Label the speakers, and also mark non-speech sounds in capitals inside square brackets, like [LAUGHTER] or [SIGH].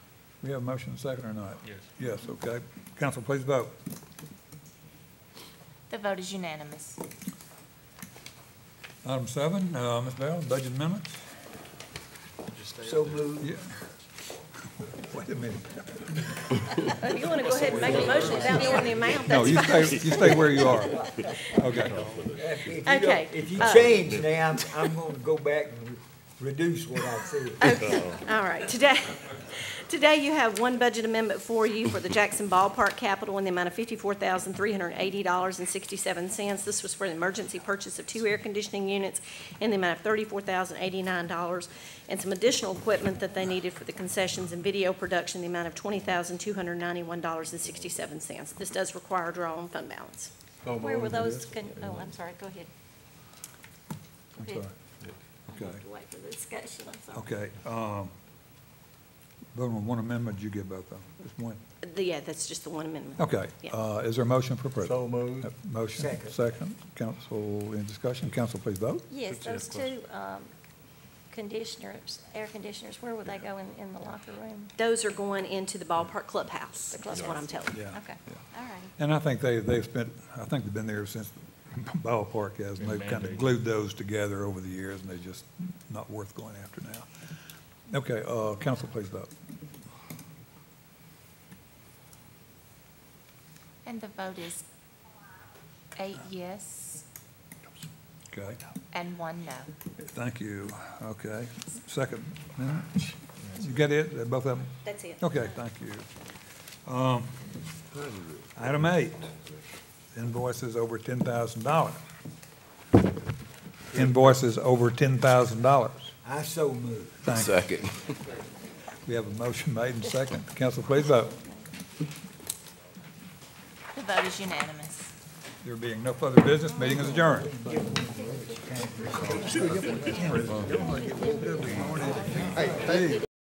Speaker 1: We have a motion and a second or not?
Speaker 2: Yes.
Speaker 1: Yes, okay. Council, please vote.
Speaker 3: The vote is unanimous.
Speaker 1: Item seven, uh, Ms. Bell, budget amendments?
Speaker 4: So moved.
Speaker 1: Yeah. [LAUGHS] Wait a minute.
Speaker 5: Oh, You want to go ahead and make a motion without knowing the amount?
Speaker 1: No,
Speaker 5: That's
Speaker 1: you
Speaker 5: fine.
Speaker 1: stay, you stay where you are. Okay.
Speaker 4: If you don't-
Speaker 5: Okay,
Speaker 4: If you
Speaker 5: uh,
Speaker 4: change now, I'm- I'm going to go back and reduce what I said.
Speaker 5: All right, today, today you have one budget amendment for you for the Jackson Ballpark capital in the amount of fifty-four thousand, three hundred and eighty dollars and sixty-seven cents. This was for the emergency purchase of two air conditioning units in the amount of thirty-four thousand, eighty-nine dollars and some additional equipment that they needed for the concessions and video production, in the amount of twenty thousand, two hundred and ninety-one dollars and sixty-seven cents. This does require a draw on fund balance.
Speaker 6: Where were those, con- oh, I'm sorry, go ahead.
Speaker 1: I'm
Speaker 6: Go
Speaker 1: sorry.
Speaker 6: ahead. I
Speaker 1: Okay.
Speaker 6: have to Wait for the discussion, I'm sorry.
Speaker 1: Okay, um, voting on one amendment, you get both of them, just one.
Speaker 5: Yeah, that's just the one amendment.
Speaker 1: Okay,
Speaker 5: Yeah.
Speaker 1: uh, is there a motion for approval?
Speaker 4: So moved.
Speaker 1: Uh, Motion,
Speaker 4: Second.
Speaker 1: second, council, in discussion, council, please vote.
Speaker 6: Yes, those two um, conditioners, air conditioners, where would they go in, in the locker room?
Speaker 5: Those are going into the ballpark clubhouse,
Speaker 6: The
Speaker 5: That's what I'm telling you.
Speaker 1: Yeah.
Speaker 6: Okay,
Speaker 1: yeah.
Speaker 6: all right.
Speaker 1: And I think they, they've spent, I think they've been there since [LAUGHS] ballpark has, and they've kind of
Speaker 2: Mandated.
Speaker 1: glued those together over the years, and they're just not worth going after now. Okay, uh, council, please vote.
Speaker 3: And the vote is eight yes
Speaker 1: Okay,
Speaker 3: and one no.
Speaker 1: thank you, okay. Second, amendment. you got it, both of them?
Speaker 5: That's it.
Speaker 1: Okay, thank you. Um, Item eight, invoices over ten thousand dollars. Invoices over ten thousand dollars.
Speaker 4: I so moved.
Speaker 1: Thank you.
Speaker 7: Second.
Speaker 1: We have a motion made and second. Council, please vote.
Speaker 3: The vote is unanimous.
Speaker 1: There being no further business, meeting is adjourned.